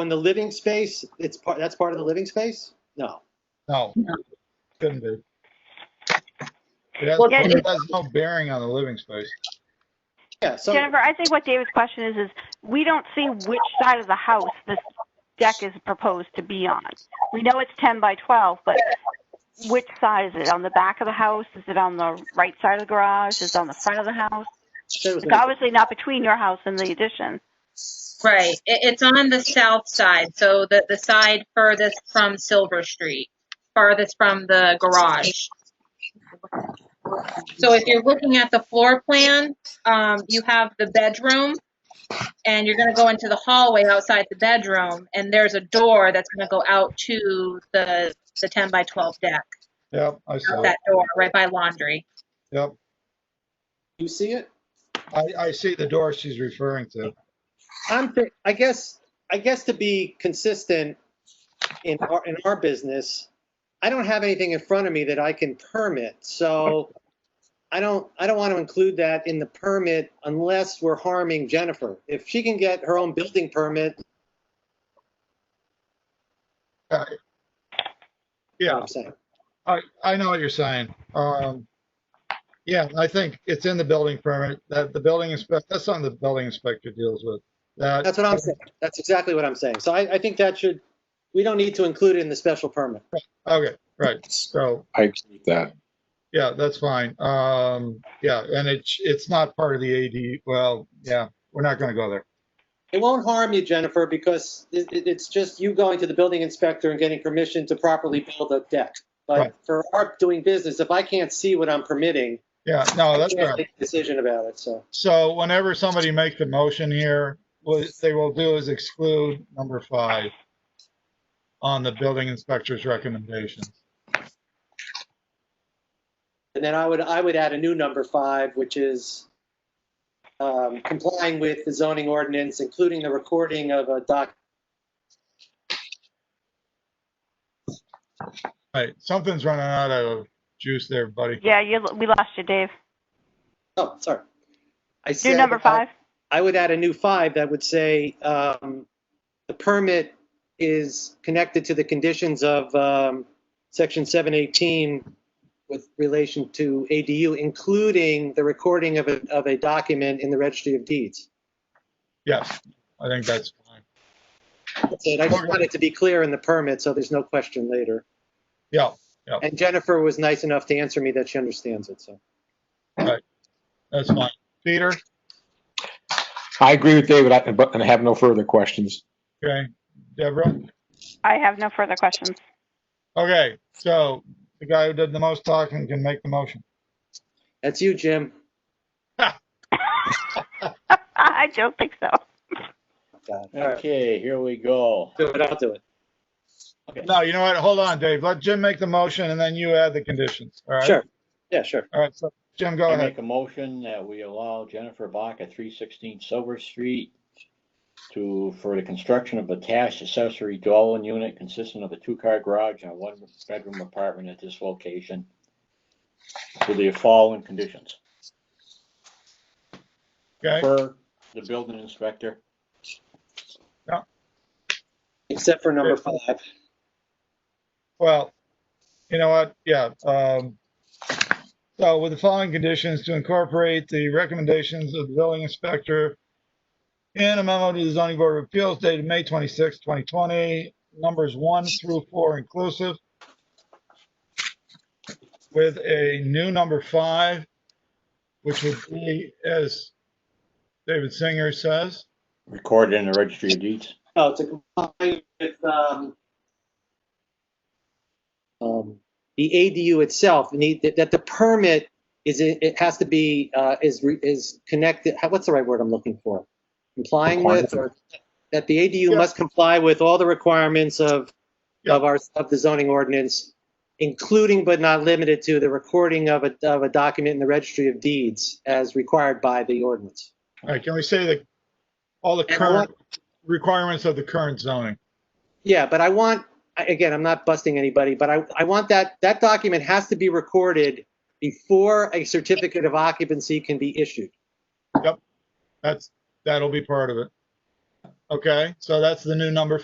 in the living space, it's part, that's part of the living space? No. No, couldn't be. It has, Well, Jen- it has no bearing on the living space. Yeah, so, Jennifer, I think what David's question is, is we don't see which side of the house this deck is proposed to be on. We know it's 10 by 12, but which side is it? On the back of the house? Is it on the right side of the garage? Is it on the front of the house? said it was It's obviously not between your house and the addition. Right, it, it's on the south side, so the, the side furthest from Silver Street, farthest from the garage. So if you're looking at the floor plan, um, you have the bedroom, and you're gonna go into the hallway outside the bedroom, and there's a door that's gonna go out to the, the ten by twelve deck, Yep, I saw out it. that door, right by laundry. Yep. you see it? I, I see the door she's referring to. I'm, thi- I guess, I guess to be consistent in our, in our business, I don't have anything in front of me that I can permit, so I don't, I don't want to include that in the permit unless we're harming Jennifer. If she can get her own building permit, Yeah, I'm saying. I, I know what you're saying. Um, yeah, I think it's in the building permit that the building inspector, that's something the building inspector deals with. That, That's what I'm saying. That's exactly what I'm saying. So I, I think that should, we don't need to include it in the special permit. okay, right. So, I agree with that. yeah, that's fine. Um, yeah, and it's, it's not part of the AD. Well, yeah, we're not going to go there. It won't harm you, Jennifer, because it, it- it's just you going to the building inspector and getting permission to properly build a deck. Right. But for our doing business, if I can't see what I'm permitting, Yeah, no, I Oh, that's fair. can't make a decision about it, so. So whenever somebody makes a motion here, what they will do is exclude number five on the building inspector's recommendations. And then I would, I would add a new number five, which is um, complying with the zoning ordinance, including the recording of a doc. Right, something's running out of juice there, buddy. Yeah, you, we lost you, Dave. Oh, sorry. I Do said, number uh, five. I would add a new five that would say, um, the permit is connected to the conditions of, um, section seven eighteen with relation to ADU, including the recording of a, of a document in the registry of deeds. Yes, I think that's fine. That's it. I just wanted to be clear in the permit, so there's no question later. Yeah, And Jennifer was nice enough to answer me that she understands it, so. that's fine. Peter, I agree with David, I- but- and I have no further questions. okay, Deborah? I have no further questions. Okay, so the guy who did the most talking can make the motion. That's you, Jim. I don't think so. God, all right. Okay, here we go. Do it, I'll do it. No, you know what? Hold on, Dave. Let Jim make the motion and then you add the conditions, all right? Sure. Yeah, sure. All right, so Jim, go I ahead. make a motion that we allow Jennifer Bach at three sixteen Silver Street to, for the construction of a attached accessory dwelling unit consisting of a two-car garage and a one-bedroom apartment at this location with the following conditions. Okay, Per the building inspector, Except for number five. well, you know what? Yeah, um, so with the following conditions to incorporate the recommendations of the building inspector in a memo to the zoning board of appeals dated May 26, 2020, numbers one through four inclusive, with a new number five, which would be, as David Singer says, recorded in the registry of deeds. No, to comply with, um, um, the ADU itself, you need, that, that the permit is, it it has to be, uh, is, re- is connected, how- what's the right word I'm looking for? Complying with, or that the ADU Yeah. must comply with all the requirements of, Yeah. of our, of the zoning ordinance, including but not limited to the recording of a, of a document in the registry of deeds as required by the ordinance. all right, can we say that all the And I current requirements of the current zoning? Yeah, but I want, I- again, I'm not busting anybody, but I, I want that, that document has to be recorded before a certificate of occupancy can be issued. That's, that'll be part of it. Okay, so that's the new number